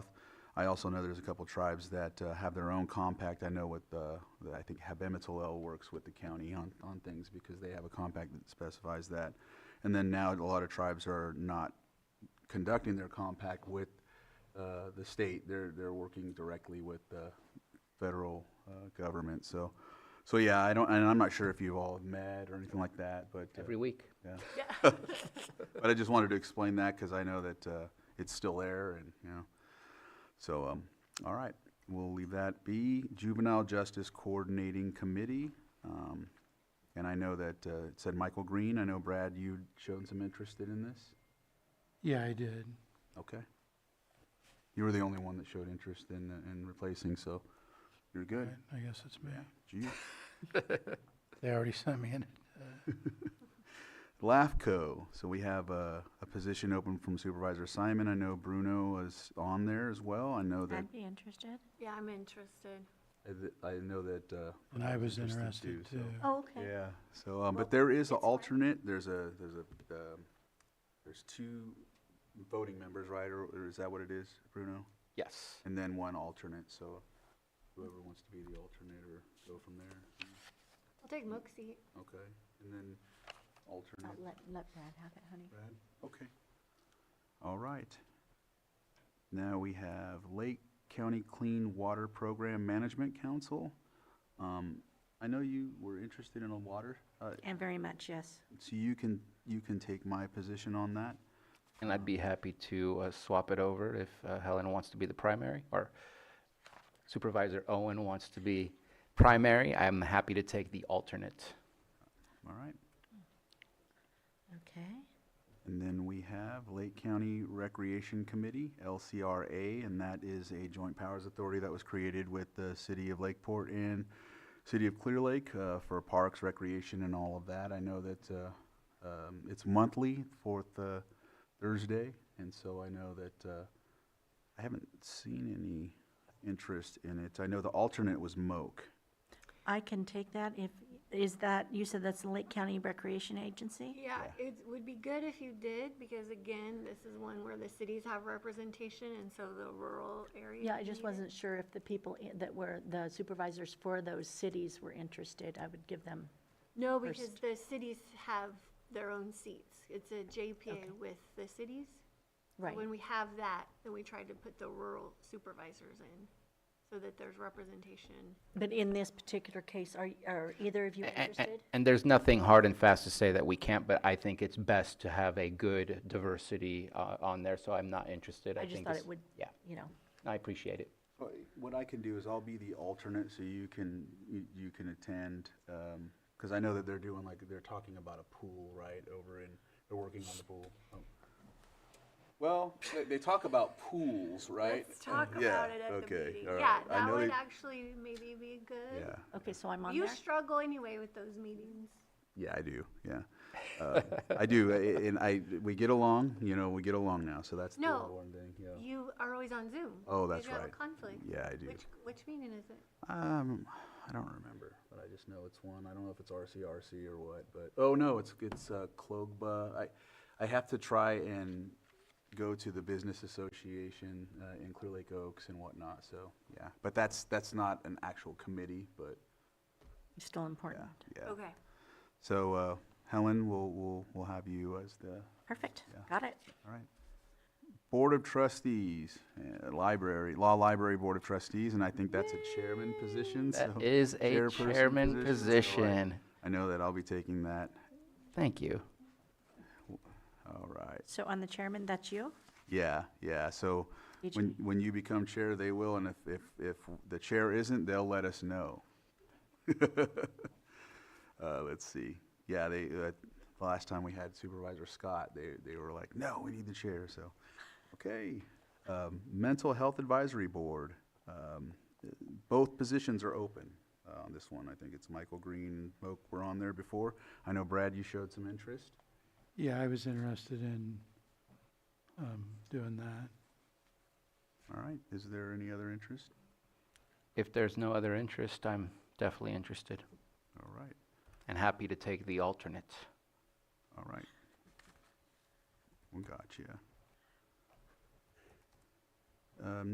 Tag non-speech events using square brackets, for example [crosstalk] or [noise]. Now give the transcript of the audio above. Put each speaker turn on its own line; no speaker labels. I also know there's a couple tribes that uh, have their own compact. I know with, uh, that I think Habemetalel works with the county on, on things because they have a compact that specifies that. And then now a lot of tribes are not conducting their compact with uh, the state. They're, they're working directly with the federal uh, government. So, so yeah, I don't, and I'm not sure if you all have met or anything like that, but. uh,
every week.
yeah. But I just wanted to explain that because I know that uh, it's still there and, you know. So, um, all right, we'll leave that be. Juvenile Justice Coordinating Committee. um, And I know that uh, it said Michael Green. I know Brad, you'd shown some interest in this.
Yeah, I did.
Okay. You were the only one that showed interest in, uh, in replacing, so you're good.
I guess it's me.
Yeah. Gee.
They already sent me in.
LAFCO, so we have a, a position open from Supervisor Simon. I know Bruno is on there as well. I know that,
I'd be interested.
Yeah, I'm interested.
I th- I know that, uh.
And I was
Interested
interested
too,
too.
so-
Oh, okay.
Yeah, so, um,
Well,
but there is an
it's fine.
alternate, there's a, there's a, um, there's two voting members, right, or, or is that what it is, Bruno?
Yes.
And then one alternate, so whoever wants to be the alternate or go from there,
I'll take Mook's seat.
okay, and then
Oh,
alternate,
Let, let Brad have it, honey.
Brad, okay. All right. Now we have Lake County Clean Water Program Management Council. Um, I know you were interested in a water, uh,
And very much, yes.
So you can, you can take my position on that?
And I'd be happy to uh, swap it over if uh, Helen wants to be the primary or Supervisor Owen wants to be primary. I'm happy to take the alternate.
All right.
Okay.
And then we have Lake County Recreation Committee, LCRA, and that is a joint powers authority that was created with the city of Lakeport and city of Clear Lake uh, for parks, recreation, and all of that. I know that uh, um, it's monthly, fourth uh, Thursday, and so I know that uh, I haven't seen any interest in it. I know the alternate was Moak.
I can take that if, is that, you said that's the Lake County Recreation Agency?
Yeah, it would be good if you did, because again, this is one where the cities have representation, and so the rural area.
Yeah, I just
need it.
wasn't sure if the people i- that were, the supervisors for those cities were interested. I would give them,
No, because the cities have their own seats. It's a JPA with the cities. So
right.
When we have that, then we try to put the rural supervisors in, so that there's representation.
But in this particular case, are, are either of you
A- a- a-
interested?
And there's nothing hard and fast to say that we can't, but I think it's best to have a good diversity uh, on there, so I'm not interested.
I just
think
thought
it's-
it would,
Yeah,
you know,
I appreciate it.
Uh, What I can do is I'll be the alternate, so you can, you- you can attend, because I know that they're doing, like, they're talking about a pool, right, over in, they're working on the pool. Oh. Well, they, they talk about pools, right?
Let's talk
Yeah,
about it at the
okay,
meeting.
all
Yeah,
right. I
that
know
would
they-
actually maybe be good.
Yeah,
okay, so I'm on
You
there?
struggle anyway with those meetings.
yeah, I do, yeah. Uh, I do, I- and I, we get along, you know, we get along now, so that's the
No.
one thing, yeah.
You are always on Zoom.
Oh,
Did
that's
you have a
right.
conflict?
Yeah, I do.
Which, which meeting is it?
Um, I don't remember, but I just know it's one. I don't know if it's RCRC or what, but, oh, no, it's, it's, uh, Clogba. I, I have to try and go to the business association, uh, in Clear Lake Oaks and whatnot, so, yeah. But that's, that's not an actual committee, but,
It's Still important.
yeah.
Okay.
So, uh, Helen, we'll, we'll, we'll have you as the,
Perfect, got it.
all right. Board of Trustees, uh, Library, Law Library Board of Trustees, and I think that's a chairman position, so.
That is a
chairperson
chairman
so I-
position.
I know that I'll be taking that.
Thank you.
All right.
So on the chairman, that's you?
Yeah, yeah. So
Did
when, when you become chair, they will, and if, if, if the chair isn't, they'll let us know. [laughs] Uh, let's see. Yeah, they, uh, the last time we had Supervisor Scott, they, they were like, no, we need the chair, so, okay. Um, Mental Health Advisory Board, um, both positions are open, uh, on this one. I think it's Michael Green, Moak were on there before. I know Brad, you showed some interest.
Yeah, I was interested in, um, doing that.
All right, is there any other interest?
If there's no other interest, I'm definitely interested
All right,
and happy to take the alternate.
all right. We got you. Um,